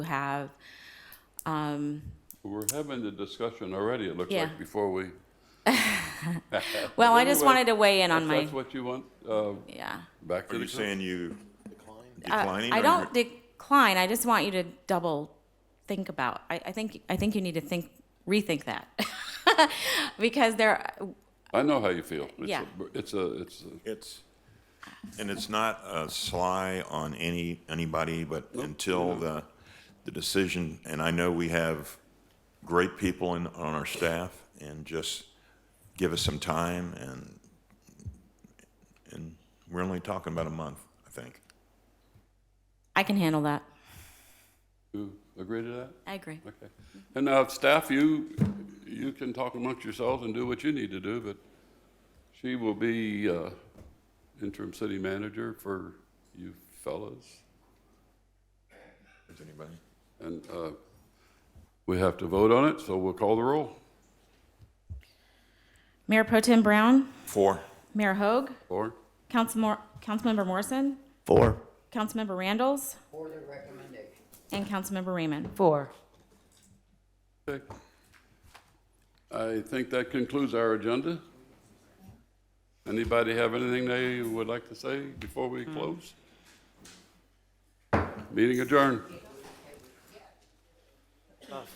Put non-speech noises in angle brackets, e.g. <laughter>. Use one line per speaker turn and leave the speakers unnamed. have. Um,
We're having the discussion already, it looks
Yeah.
like, before we.
well, I just
Anyway,
wanted to weigh in on
if
my,
That's what you want, uh,
yeah.
back
Are
to
you
the,
saying you
Uh,
declining?
I
or
don't decline. I just want you to double think about. I, I think I think you need to think rethink that <laughs> because there.
I know how you feel. It's a-
Yeah.
It's a, it's, a-
It's, and it's not a sly on any, anybody, but until the, the decision, and I know we have great people in, on our staff, and just give us some time, and, and we're only talking about a month, I think.
I can handle that.
you agree to that?
I agree.
Okay. And now, staff, you, you can talk amongst yourselves and do what you need to do, but she will be uh, interim city manager for you fellows.
Is anybody?
And uh, we have to vote on it, so we'll call the roll.
Mayor Pro Tem Brown,
Four.
Mayor Hogue,
Or,
Councilmor- Councilmember Morrison,
Four.
Councilmember Randalls,
For the recommendation.
and Councilmember Raymond. Four.
okay. I think that concludes our agenda. Anybody have anything they would like to say before we close? Meeting adjourned.